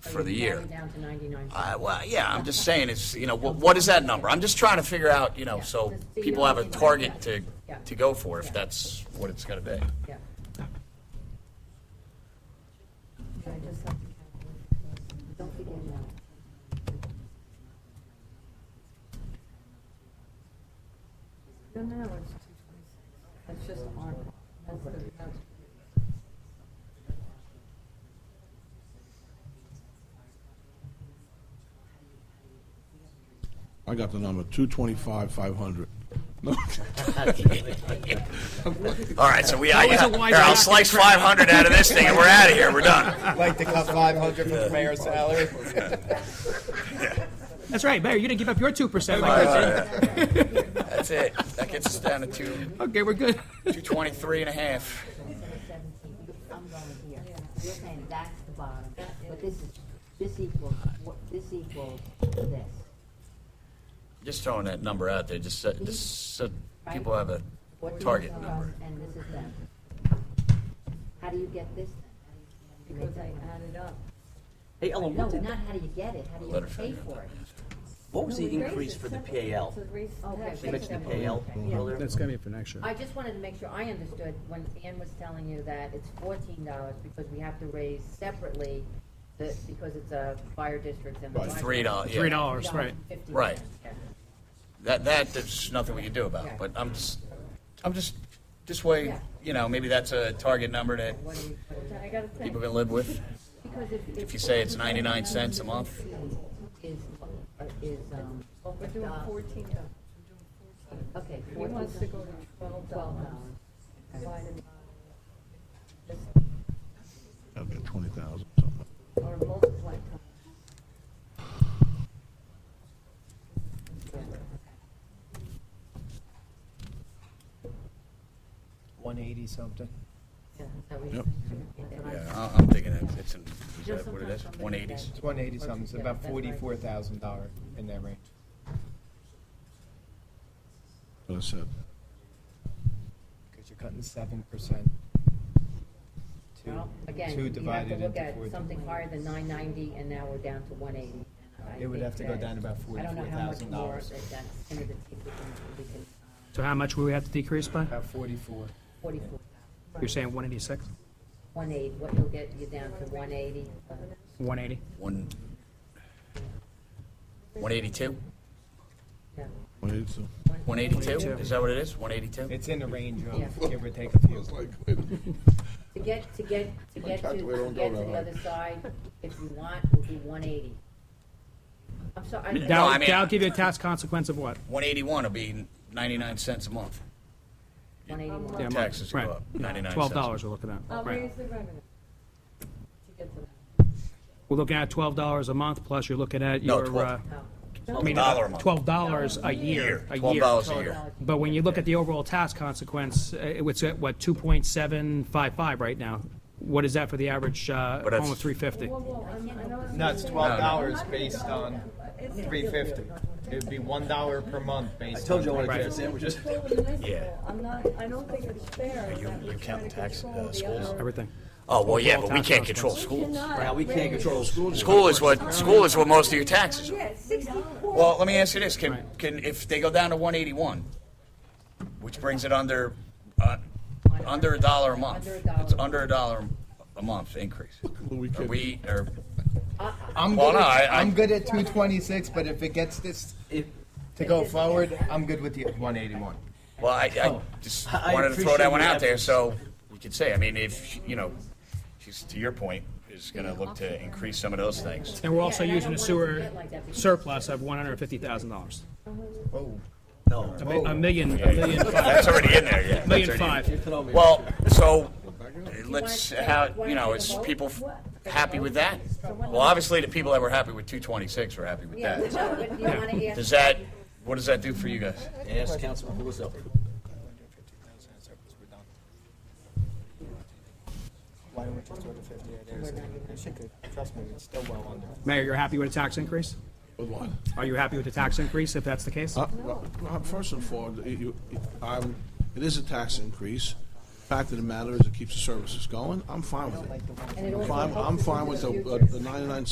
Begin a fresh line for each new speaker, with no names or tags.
for the year.
Down to ninety-nine.
Uh, well, yeah, I'm just saying, it's, you know, what, what is that number? I'm just trying to figure out, you know,
Yeah.
so
Just so you
people
know
have a
what you
target
want.
to,
Yeah.
to go for if
Yeah.
that's what it's gonna be.
Yeah. I just have to calculate. Don't begin now. No, no, it's two twenty-six. That's just on, that's the, that's.
I got the number, two twenty-five, five hundred.
All right, so we, I,
Always a
here,
wide
I'll
racket
slice five hundred out of this thing and we're out of here, we're done.
Like to cut five hundred from the mayor's salary?
That's right, Mayor, you didn't give up your 2% like I said.
That's it. That gets us down to two,
Okay, we're good.
two twenty-three and a half.
I'm going here. You're saying that's the bottom, but this is, this equals, what- this equals this.
Just throwing that number out there, just so, just so people have a
What do you
target
tell
number.
us And this is them. How do you get this? Because I added up.
Hey, Ellen,
No,
what did,
not how do you get it, how do
Let
you
her
pay
figure it
for it?
what was the increase for the PAL?
Okay.
You mentioned the PAL earlier.
Mm-hmm. That's gonna be for next year.
I just wanted to make sure I understood when Ann was telling you that it's fourteen dollars because we have to raise separately the, because it's a fire district and the.
Right.
library.
Three dollars, yeah.
Three dollars, right.
$3.50.
Right.
Yeah.
That, that, there's nothing we can do
Yeah.
about, but I'm just, I'm just, this way,
Yeah.
you know, maybe that's a target number that
What do you- what do you- I gotta think.
people can live with.
Because if.
If you say it's 99 cents a month.
Is, is, um.
We're doing fourteen dollars.
Okay.
He wants to go to twelve dollars. Divided by this-
I'll get twenty thousand,
Or multiply times.
One eighty something.
Yep.
Yeah, I- I'm thinking it's, it's, in- is that what it is, one eighties?
It's one eighty something, it's about forty-four thousand dollar in that range.
but I said,
Because you're cutting seven percent.
Well, Again,
Two
you have to
divided
look
into
at something
fourteen.
higher than nine ninety, and now we're down to one eighty.
It would have to go down to about
I don't know how much more
$44,000.
that that's gonna be, we can- we can,
So how much will we have to decrease by?
About forty-four.
forty-four,
You're saying 186,
one eighty, what you'll get, you down to one eighty. uh,
180?
One, one eighty-two,
we need to.
one eighty-two, is that what it is, one eighty-two?
It's in the range
Yeah.
of, give or take a few.
To get, to get, to get to,
calculator
to
don't
get
go that
to the
high.
other side, if you want, will be one eighty. I'm sorry. I-
No, I
That'll,
mean-
that'll give you a tax consequence of what?
One eighty-one will be ninety-nine cents a month.
181.
Yeah,
Taxes go
Right.
up,
Yeah,
ninety-nine cents.
$12 we're looking
I'll
at, right.
raise the revenue. To get to
We're looking at $12 a month, plus you're looking at
No,
your,
12.
uh,
Oh,
I mean,
Dollar a month.
$12 a year, a year.
Twelve dollars a
twelve
year.
dollars.
But when you look at the overall tax consequence, uh, it's at, what, 2.755 right now? What is that for the average uh,
But that's-
home of 350?
that. Whoa, whoa, I'm- I know it's-
No, it's twelve dollars based on three fifty. It'd be one dollar per month based on.
I told you I wanted to
Right.
get the sandwiches.
Control the municipal.
Yeah.
I'm not, I don't think it's fair that we're trying to control the other.
Everything.
Oh, well, yeah, but we
tax
can't control
consequence.
schools.
Now, we can't control the schools.
School is what, school is what most of your taxes are.
Yeah, sixty-four.
Well, let me ask you this, can,
Right.
can, if they go down to one eighty-one, which brings it under, uh, under a dollar a month,
Under a dollar.
it's under a dollar a month increase.
We
Are
could-
we, are,
I'm
Well,
good,
no,
at,
I-
I, am
I-
good at 226, but if it gets this
If-
to go forward, I'm good with the 181.
well, I, I just
I- I
wanted to throw
appreciate
that one
your
out there,
efforts.
so you could say, I mean, if, you know, she's, to your point, is gonna look to increase some of those things.
And we're also
Yeah, and I
using a
don't want it to
sewer
get like that because-
surplus of $150,000.
Oh,
No.
A mi- a million, a million, fi-
That's already in there, yeah.
million
Oh. That's already in there.
five.
Well, so let's, how, you know, it's people happy with that? Well, obviously, the people that were happy with 226 were happy with
Yeah,
that.
no, but you wanna ask.
Does that, what does that do for you guys?
Ask Councilman Russo.
why don't we just go to 50? It should go. Trust me, it's still well under.
Mayor, you're happy with a tax increase?
With what?
Are you happy with the tax increase, if that's the case?
Uh, well, no, First and foremost, it, you- it- I'm, it is a tax increase. Fact of the matter is, it keeps the services going. I'm fine with it.
And
I'm
it also
fine,
helps
I'm
us in
fine
the
with the,
future.
uh, the ninety-nine